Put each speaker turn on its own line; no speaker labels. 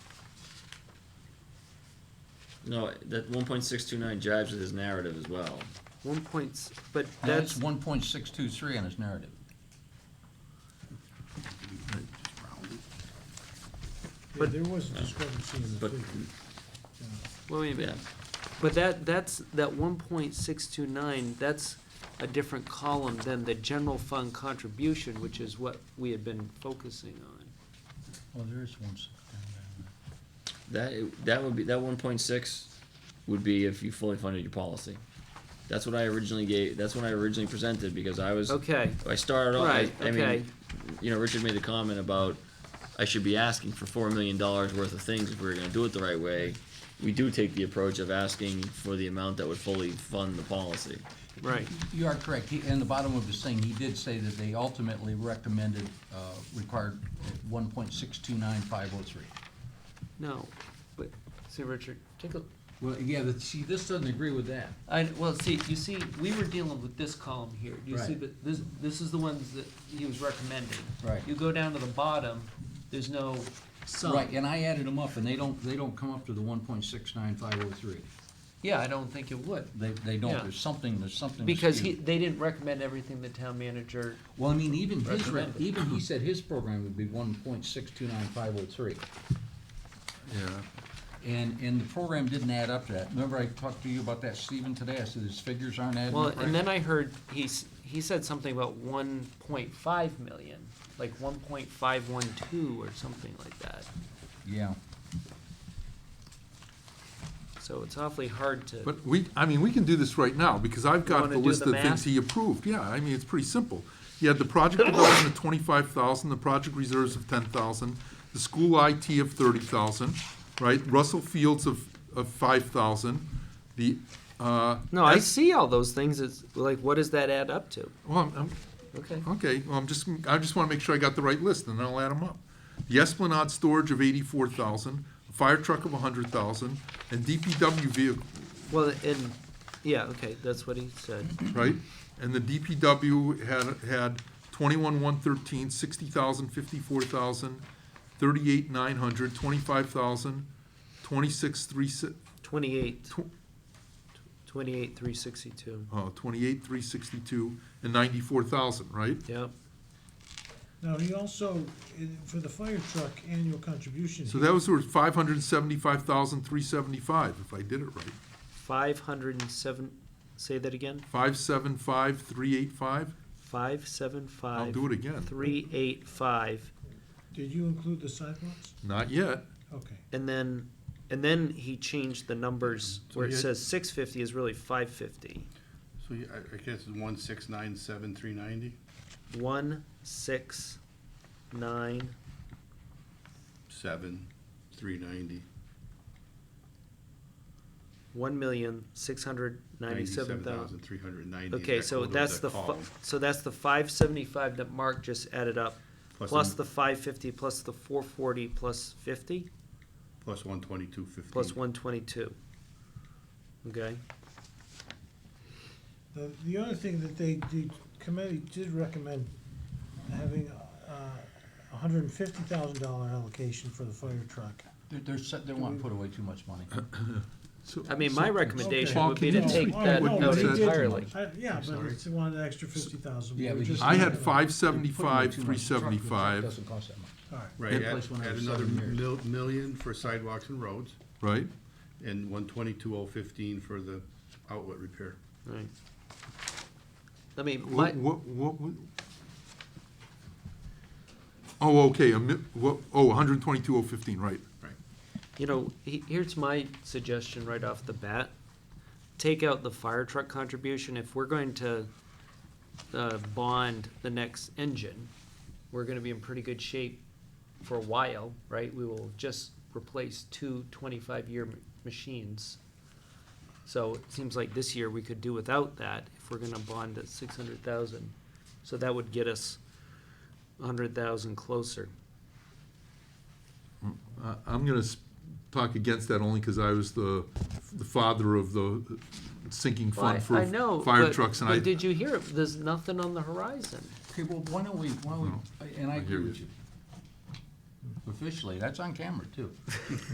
No, that one point six two nine jives with his narrative as well.
One point, but
That's
that's,
one point six two three on his narrative.
Yeah, there was a discrepancy in the
But-
figure.
well, wait a
Yeah,
minute. But that, that's, that one point six two nine, that's a different column than the general fund contribution, which is what we had been focusing on.
Oh, there is one six down
that, that would be, that one point six would be if you fully funded your policy. That's what I originally gave, that's when I originally presented, because I was,
Okay,
I started off, I,
Right,
I
okay.
mean, you know, Richard made the comment about, I should be asking for four million dollars worth of things if we were gonna do it the right way. We do take the approach of asking for the amount that would fully fund the policy.
right,
You are correct. He, in the bottom of his thing, he did say that they ultimately recommended, uh, required one point six two nine five oh three.
no, but, see, Richard, take a,
Well, yeah, but see, this doesn't agree with that.
I, well, see, you see, we were dealing with this column here, you see,
Right.
that this, this is the ones that he was recommending.
Right.
You go down to the bottom, there's no sum.
Right, and I added them up, and they don't, they don't come up to the one point six nine five oh three.
Yeah, I don't think it would.
They, they
Yeah.
don't. There's something, there's something.
Because he,
skewed.
they didn't recommend everything the town manager,
Well, I mean, even his, re-
Recommended.
even he said his program would be one point six two nine five oh three.
Yeah.
And, and the program didn't add up to that. Remember I talked to you about that, Stephen, today? I said his figures aren't adding
well,
up. right?
and then I heard, he, s- he said something about one point five million, like one point five one two or something like that.
Yeah.
So it's awfully hard to,
But we, I mean, we can do this right now, because I've got
wanna
the
do
list
the
of things
math?
he approved, yeah, I mean, it's pretty simple. He had the project development of twenty-five thousand, the project reserves of ten thousand, the school IT of thirty thousand, right? Russell Fields of, of five thousand, the, uh.
no, I
S-
see all those things, it's like, what does that add up to?
Well, I'm- I'm,
Okay.
Okay, well, I'm just, I just wanna make sure I got the right list, and then I'll add them up. The Esplanade storage of eighty-four thousand, a fire truck of a hundred thousand, and DPW vehicle,
Well, and, yeah, okay, that's what he said.
right? And the DPW had, had twenty-one, one thirteen, sixty thousand, fifty-four thousand, thirty-eight, nine hundred, twenty-five thousand, twenty-six, three, si-
Twenty-eight,
tw-
twenty-eight, three sixty-two.
uh, twenty-eight, three sixty-two, and ninety-four thousand, right?
Yep,
Now, he also, eh, for the fire truck annual contribution.
So
Mhm.
he-
that was five hundred and seventy-five thousand, three seventy-five, if I did it right.
five hundred and seven, say that again,
Five, seven, five, three, eight, five?
five, seven, five.
I'll do it again.
Three, eight, five,
Did you include the sidewalks?
Not yet.
Okay.
and then, and then he changed the numbers
So
where it
you had-
says six fifty is really five fifty.
So you- I I guess it's one six nine seven three ninety,
One, six, nine,
seven, three ninety.
one million, six hundred ninety-seven thousand.
Three hundred and ninety.
Okay, so that's the, fi- so that's the five seventy-five that Mark just added up,
Plus
plus
the-
the five fifty, plus the four forty, plus fifty,
Plus one twenty-two fifteen.
plus one twenty-two. Okay,
The, the other thing that they, the committee did recommend having uh, a hundred and fifty thousand dollar allocation for the fire truck.
They're, they're, set- they want to put away too much money.
Uh, So-
I mean, my
so-
recommendation
Paul,
would be
can
to
you
take
explain
that
what you
out
said?
entirely.
I- Yeah, but
sorry.
it's wanted an extra fifty thousand.
Yeah, we just-
I had
They're
five
putting away
seventy-five,
too
three
much. Truck- the truck
seventy-five,
Doesn't cost that much.
All right.
Right,
Place
add,
one
add
every
another
seven years.
mil- million for sidewalks and roads,
right?
and one twenty-two oh fifteen for the outlet repair.
Right. I mean, my,
What, what, what? would- Oh, okay, a mi, what, oh, one hundred twenty-two, oh fifteen, right.
you know, he, here's my suggestion right off the bat. Take out the fire truck contribution. If we're going to, uh, bond the next engine, we're gonna be in pretty good shape for a while, right? We will just replace two 25-year m- machines. So it seems like this year we could do without that if we're gonna bond at 600,000. So that would get us 100,000 closer.
I, Uh, I'm gonna s- talk against that only because I was the, the father of the sinking
Well, I-
fund for
I know,
fire
but-
trucks, and
but
I.
Did you hear it? There's nothing on the horizon.
Okay, well, why don't we, why don't we, and I
I hear
agree with
you.
you. Officially, that's on camera too.